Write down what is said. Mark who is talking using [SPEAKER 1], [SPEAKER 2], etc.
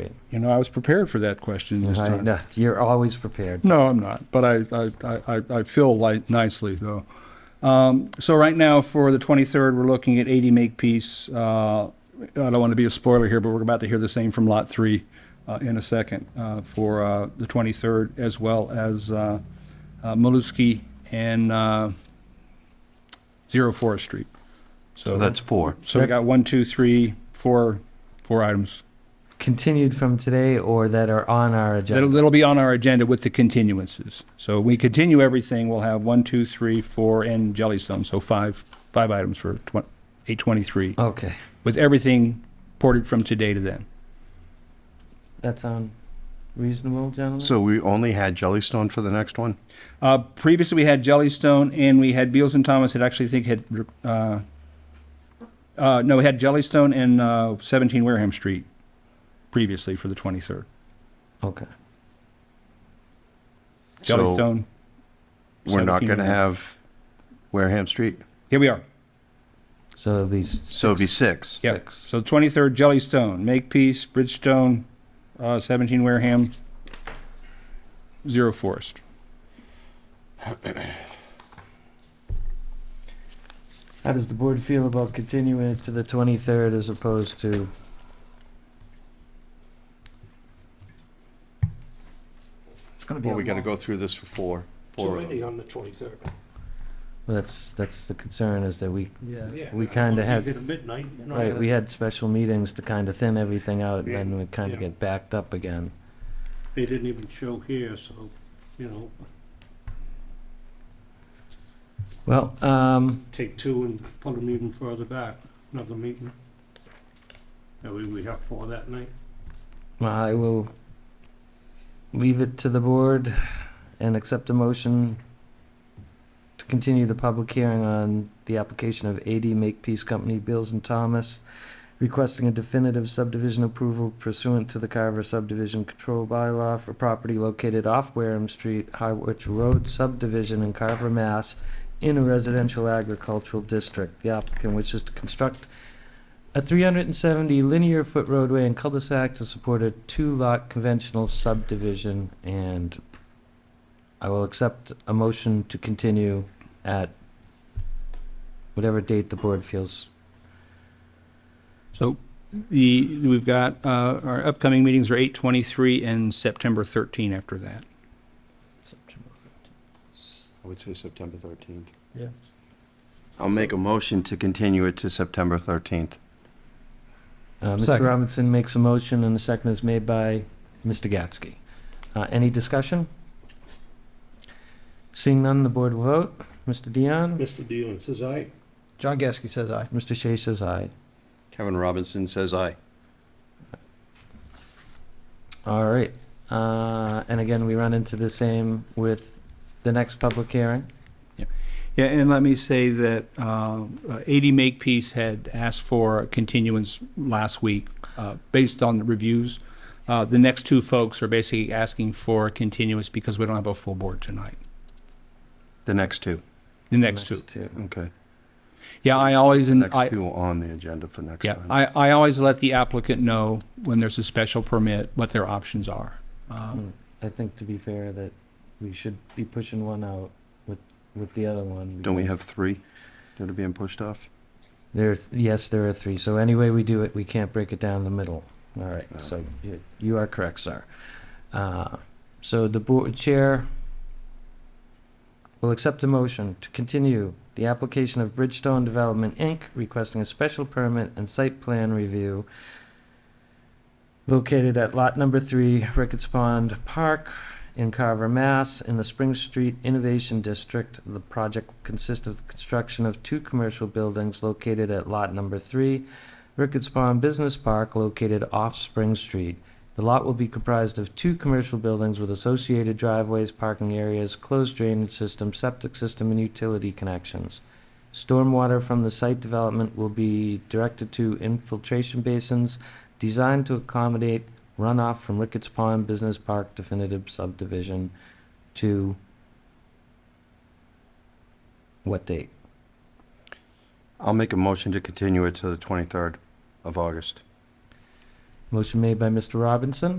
[SPEAKER 1] Great.
[SPEAKER 2] You know, I was prepared for that question this
[SPEAKER 1] I-
[SPEAKER 2] time.
[SPEAKER 1] no, You're always prepared.
[SPEAKER 2] No, I'm not, but I, I- I, I, I feel like nicely though. Um, so right now for the 23rd, we're looking at 80 make piece. Uh, I don't want to be a spoiler here, but we're about to hear the same from lot three uh, in a second uh, for uh, the 23rd, as well as uh, uh, Maluski and uh, Zero Forest Street. So
[SPEAKER 3] So that's four.
[SPEAKER 2] so we got one, two, three, four, four items.
[SPEAKER 1] Continued from today or that are on our
[SPEAKER 2] That'll,
[SPEAKER 1] agenda.
[SPEAKER 2] that'll be on our agenda with the continuances. So we continue everything, we'll have one, two, three, four, and Jellystone, so five, five items for twen- 823,
[SPEAKER 1] Okay,
[SPEAKER 2] with everything ported from today to then.
[SPEAKER 1] that sound reasonable, gentlemen?
[SPEAKER 3] So we only had Jellystone for the next one?
[SPEAKER 2] Uh, previously, we had Jellystone, and we had Beals and Thomas, that actually think had, uh, uh, no, we had Jellystone and, uh, 17 Wareham Street previously for the 23rd.
[SPEAKER 1] Okay.
[SPEAKER 3] So
[SPEAKER 2] Jellystone,
[SPEAKER 3] we're not
[SPEAKER 2] 17
[SPEAKER 3] going to
[SPEAKER 2] and-
[SPEAKER 3] have Wareham Street?
[SPEAKER 2] here we are.
[SPEAKER 1] So it'll be s-
[SPEAKER 3] So it'd be six.
[SPEAKER 2] Yeah.
[SPEAKER 1] six.
[SPEAKER 2] So 23rd, Jellystone, Makepeace, Bridgestone, uh, 17 Wareham, Zero Forest.
[SPEAKER 1] How does the board feel about continuing it to the 23rd as opposed to?
[SPEAKER 4] It's gonna be.
[SPEAKER 3] Well,
[SPEAKER 4] a
[SPEAKER 3] we got to
[SPEAKER 4] long-
[SPEAKER 3] go through this for four.
[SPEAKER 5] Too
[SPEAKER 3] four of
[SPEAKER 5] many
[SPEAKER 3] them.
[SPEAKER 5] on the twenty-third.
[SPEAKER 1] Well, that's, that's the concern is that we,
[SPEAKER 4] Yeah.
[SPEAKER 1] We kinda have-
[SPEAKER 5] Get a midnight, you know.
[SPEAKER 1] right, we had special meetings to kind of thin everything out and then we kind of
[SPEAKER 5] Yeah.
[SPEAKER 1] get backed up again.
[SPEAKER 5] They didn't even show here, so, you know,
[SPEAKER 1] Well, um,
[SPEAKER 5] take two and put them even further back, another meeting. That way we have four that night.
[SPEAKER 1] I will leave it to the board and accept a motion to continue the public hearing on the application of AD Makepeace Company, Beals and Thomas, requesting a definitive subdivision approval pursuant to the Carver subdivision control bylaw for property located off Wareham Street, Harwich Road subdivision in Carver, Mass, in a residential agricultural district. The applicant wishes to construct a 370 linear foot roadway and cul-de-sac to support a two-lot conventional subdivision, and I will accept a motion to continue at whatever date the board feels.
[SPEAKER 2] So the, we've got, uh, our upcoming meetings are 8:23 and September 13 after that.
[SPEAKER 3] I would say September 13th.
[SPEAKER 1] Yeah.
[SPEAKER 3] I'll make a motion to continue it to September 13th.
[SPEAKER 1] Uh, Mr.
[SPEAKER 4] Second.
[SPEAKER 1] Robinson makes a motion, and the second is made by Mr. Gatsky. Uh, Any discussion? Seeing none, the board will vote. Mr. Dion?
[SPEAKER 5] Mr. Dillon says aye.
[SPEAKER 4] John Gasky says aye.
[SPEAKER 1] Mr. Shea says aye.
[SPEAKER 3] Kevin Robinson says aye.
[SPEAKER 1] All right. Uh, and again, we run into the same with the next public hearing.
[SPEAKER 2] Yeah, and let me say that uh, uh, AD Makepeace had asked for a continuance last week uh, based on the reviews. Uh, The next two folks are basically asking for a continuance because we don't have a full board tonight,
[SPEAKER 3] The next two.
[SPEAKER 2] the next two.
[SPEAKER 3] Okay.
[SPEAKER 2] Yeah, I always,
[SPEAKER 3] The
[SPEAKER 2] and
[SPEAKER 3] next
[SPEAKER 2] I,
[SPEAKER 3] two on the agenda for next
[SPEAKER 2] Yeah,
[SPEAKER 3] time.
[SPEAKER 2] I, I always let the applicant know when there's a special permit, what their options are. Um,
[SPEAKER 1] I think to be fair that we should be pushing one out with, with the other one.
[SPEAKER 3] Don't we have three that are being pushed off?
[SPEAKER 1] There, yes, there are three. So any way we do it, we can't break it down the middle. All right. So you, you are correct, sir. Uh, so the board chair will accept a motion to continue the application of Bridgestone Development Inc. requesting a special permit and site plan review located at lot number three, Ricketts Pond Park, in Carver, Mass, in the Spring Street Innovation District. The project will consist of the construction of two commercial buildings located at Lot Number Three, Ricketts Pond Business Park, located off Spring Street. The lot will be comprised of two commercial buildings with associated driveways, parking areas, closed drainage system, septic system, and utility connections. Stormwater from the site development will be directed to infiltration basins designed to accommodate runoff from Ricketts Pond Business Park definitive subdivision to what date?
[SPEAKER 3] I'll make a motion to continue it to the 23rd of August.
[SPEAKER 1] Motion made by Mr. Robinson.